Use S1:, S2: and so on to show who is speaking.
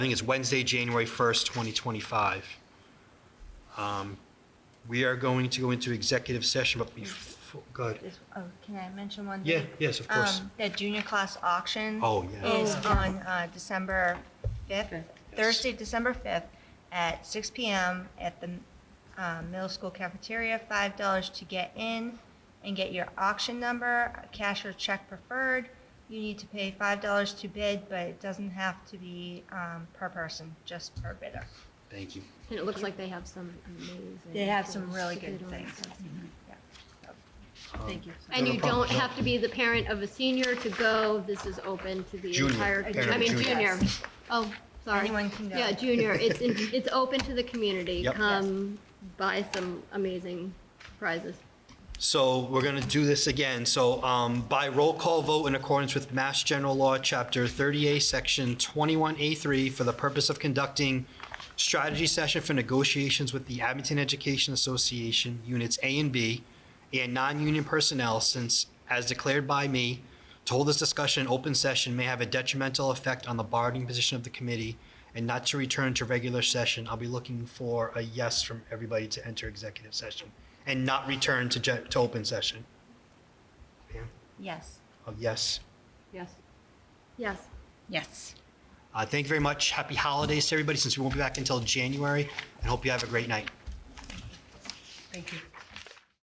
S1: I think it's Wednesday, January 1st, 2025. Um, We are going to go into executive session, but before, go ahead.
S2: This- Oh, can I mention one
S1: Yeah,
S2: thing?
S1: yes, of course.
S2: Um, The junior class auction
S1: Oh, yeah.
S2: is on uh, December 5th, Thursday, December 5th, at six PM at the um, middle school cafeteria, $5 to get in and get your auction number, cash or check preferred. You need to pay $5 to bid, but it doesn't have to be um, per person, just per bidder.
S1: Thank you.
S3: And it looks like they have some amazing.
S2: They have some
S3: things
S2: really
S3: that
S2: good
S3: they're doing.
S2: things. Yeah.
S1: Thank you.
S3: And
S1: No
S3: you
S1: problem.
S3: don't have to be the parent of a senior to go. This is open to the
S1: Junior,
S3: entire,
S1: parent
S3: I mean,
S1: of
S3: junior.
S1: junior.
S3: Oh, sorry.
S2: Anyone can go.
S3: Yeah, junior. It's, in- it's open to the community.
S1: Yep. Yes.
S3: Come buy some amazing prizes.
S1: So we're going to do this again. So um, by roll call vote in accordance with Mass General Law, Chapter 38, Section 21A3, for the purpose of conducting strategy session for negotiations with the Abington Education Association, Units A and B, and non-union personnel, since, as declared by me, to hold this discussion in open session may have a detrimental effect on the bargaining position of the committee and not to return to regular session. I'll be looking for a yes from everybody to enter executive session and not return to, gen- to open session. Pam?
S2: Yes.
S1: A yes.
S3: Yes. Yes.
S2: Yes.
S1: Uh, thank you very much. Happy holidays to everybody, since we won't be back until January, and hope you have a great night.
S2: Thank you.